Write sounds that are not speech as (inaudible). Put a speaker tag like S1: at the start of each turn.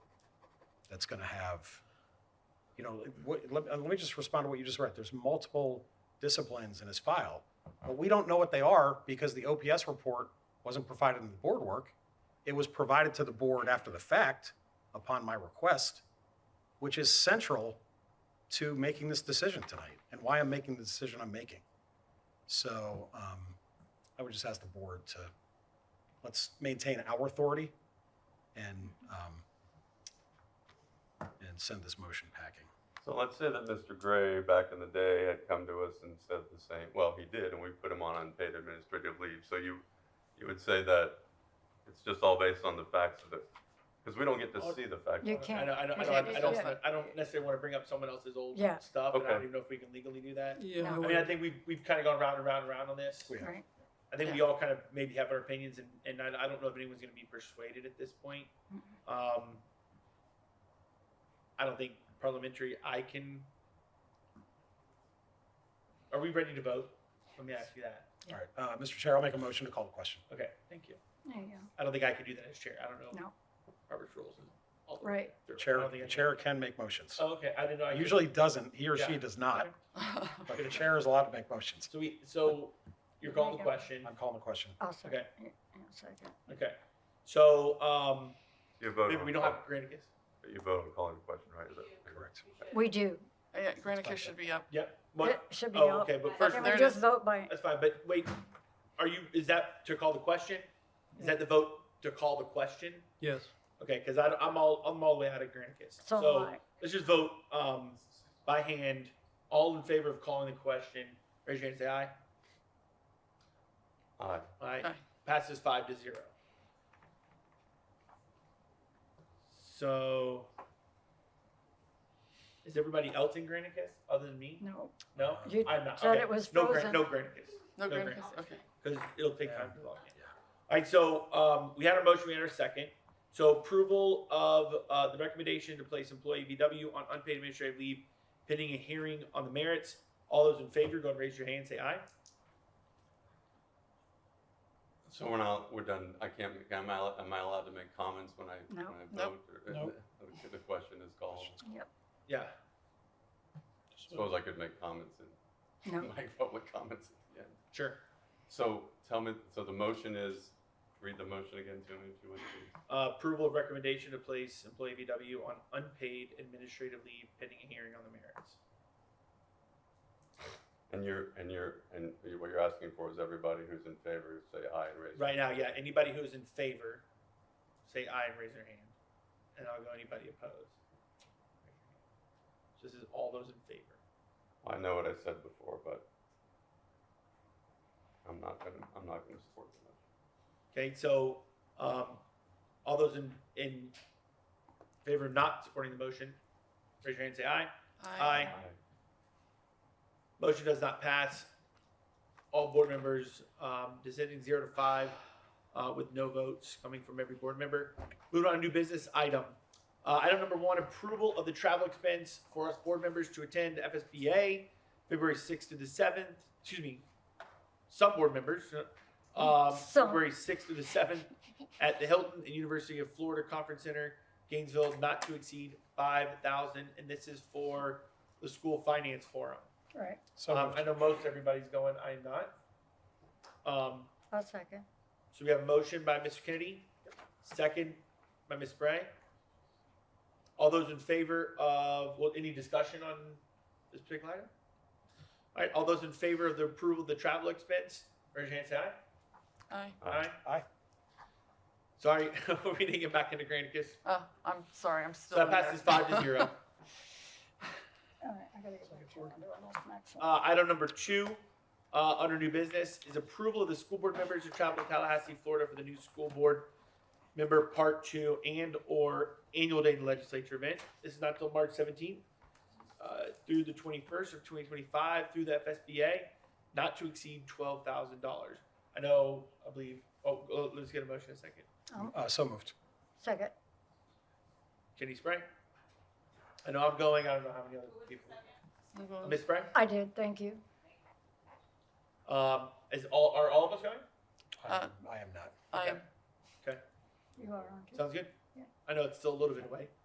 S1: that's gonna have, you know, what, let, uh, let me just respond to what you just read. There's multiple disciplines in his file, but we don't know what they are because the OPS report wasn't provided in the board work. It was provided to the board after the fact upon my request, which is central to making this decision tonight and why I'm making the decision I'm making. So, um, I would just ask the board to, let's maintain our authority and, um, and send this motion packing.
S2: So let's say that Mr. Gray, back in the day, had come to us and said the same, well, he did, and we put him on unpaid administrative leave. So you, you would say that it's just all based on the facts of it, because we don't get to see the facts.
S3: You
S2: of it.
S3: can't.
S4: I don't, I don't, I
S3: Okay,
S4: don't, I don't,
S3: yeah.
S4: I don't necessarily want to bring up someone else's old
S3: Yeah.
S4: stuff, and I don't
S2: Okay.
S4: even know if we can legally do that.
S3: No.
S5: Yeah, I
S4: I mean, I
S5: would-
S4: think we've, we've kind of gone round and round and round on this.
S1: We have-
S3: Right.
S4: I think we all kind of maybe have our opinions, and, and I, I don't know if anyone's going to be persuaded at this point. Um, I don't think parliamentary, I can. Are we ready to vote? Let me ask you that.
S1: All right, uh, Mr. Chair, I'll make a motion to call the question.
S4: Okay, thank you.
S3: There you
S4: I don't think I could do that as chair. I don't know.
S3: No.
S4: Robert's rules. and all the- (laughs)
S3: Right.
S4: I don't
S1: Chair,
S4: think I
S1: the
S4: can.
S1: chair can make motions. Uh,
S4: Oh, okay, I didn't know. I could.
S1: Usually doesn't, he or
S4: Yeah.
S1: she does not,
S4: Okay.
S3: go.
S1: but the chair is allowed to make motions.
S4: So we, so you're calling the question.
S1: I'm calling the question.
S3: I'll second.
S4: Okay.
S3: Yeah, I'll second.
S4: Okay. So, um,
S2: You vote
S4: maybe
S2: on
S4: we don't
S2: call-
S4: have Granicus.
S2: You vote on calling the question, right? Is that
S1: Correct.
S3: We do.
S5: Uh, yeah, Granicus should be up.
S4: Yep.
S3: It
S4: What?
S3: should be
S4: Oh,
S3: all.
S4: okay, but first,
S3: Can we
S5: there it
S3: just
S5: is.
S3: vote by,
S4: that's fine, but wait, are you, is that to call the question? Is that the vote to call the question?
S5: Yes.
S4: Okay, cause I, am all, I'm all the way out of Granicus.
S3: so
S4: So
S3: am I.
S4: let's just vote, um, by hand, all in favor of calling the question, raise your hand, and say aye.
S2: Aye.
S4: Aye.
S5: Aye.
S4: Passes five to zero. So, is everybody else in Granicus other than me?
S3: No,
S4: No,
S1: Uh,
S3: You
S4: I'm not.
S3: said
S4: okay.
S3: it was
S4: no,
S3: frozen.
S4: Gran- no Granicus,
S5: No
S4: No
S5: Granicus,
S4: Granicus.
S5: okay.
S4: because it'll take
S1: Yeah.
S4: time to log in.
S1: Yeah.
S4: All right, so um, we had our motion, we had our second. So approval of uh, the recommendation to place employee VW on unpaid administrative leave pending a hearing on the merits. All those in favor, go and raise your hand. Say aye.
S2: So we're not, we're done, I can't, am I, al- am I allowed to make comments when I, when
S3: No.
S2: I
S5: Nope.
S2: vote? or- uh,
S1: Nope.
S2: Okay, The question is called.
S4: Yeah.
S2: Suppose I could make comments and (laughs)
S3: no.
S2: make public comments at the end.
S4: Sure.
S2: So tell me, so the motion is, read the motion again to me if you would, please.
S4: Uh, approval of recommendation to place employee VW on unpaid administrative leave pending a hearing on the merits.
S2: And you're, and you're, and you- what you're asking for is everybody who's in favor, say aye and raise. your
S4: Right now, yeah. Anybody who's in favor, say aye and raise their hand. And I'll go anybody opposed. So this is all those in favor.
S2: I know what I said before, but I'm not gonna, I'm not gonna support the motion.
S4: Okay, so um, all those in, in favor of not supporting the motion, raise your hand and say aye. Aye. Motion does not pass. All board members um, descending zero to five uh, with no votes coming from every board member. Moving on to new business item. Uh, Item number one, approval of the travel expense for us board members to attend FSBA, February 6th to the 7th, excuse me, some board members, um,
S3: Some.
S4: February 6th to the 7th at the Hilton and University of Florida Conference Center, Gainesville, not to exceed 5,000. And this is for the school finance forum.
S3: Right,
S1: So
S4: Um,
S1: moved.
S4: I know most everybody's going, I am not. Um,
S3: I'll second.
S4: so we have a motion by Mr. Kennedy, second by Ms. Bray. All those in favor of, well, any discussion on this particular item? All right, all those in favor of the approval of the travel expense, raise your hand, say aye.
S5: Aye.
S2: Aye.
S1: Aye.
S4: Sorry, (laughs) we didn't get back into Granicus.
S5: Oh, I'm sorry, I'm
S4: So
S5: still.
S4: that
S5: in there.
S4: passes five to
S5: (laughs)
S4: zero.
S3: All right, I gotta go back to my next one.
S4: Uh, item number two, uh, under new business, is approval of the school board members who travel to Tallahassee, Florida for the new school board member part two and or annual day in the legislature event. This is not till March seventeenth, uh, through the twenty-first of twenty twenty-five through the FSBA, not to exceed twelve thousand dollars. I know, I believe, oh, oh, let's get a motion in a second.
S1: Uh, so moved.
S3: Second,
S4: Jenny Spray? I know I'm going, I don't know how many other people.
S5: I'm going-
S4: Miss Spray?
S3: I did, thank you.
S4: Um, is all, are all of us going?
S1: I
S5: Uh,
S1: I am not.
S5: I am,
S3: You are on.
S4: Sounds good?
S3: Yeah.
S4: I know it's still a little bit away.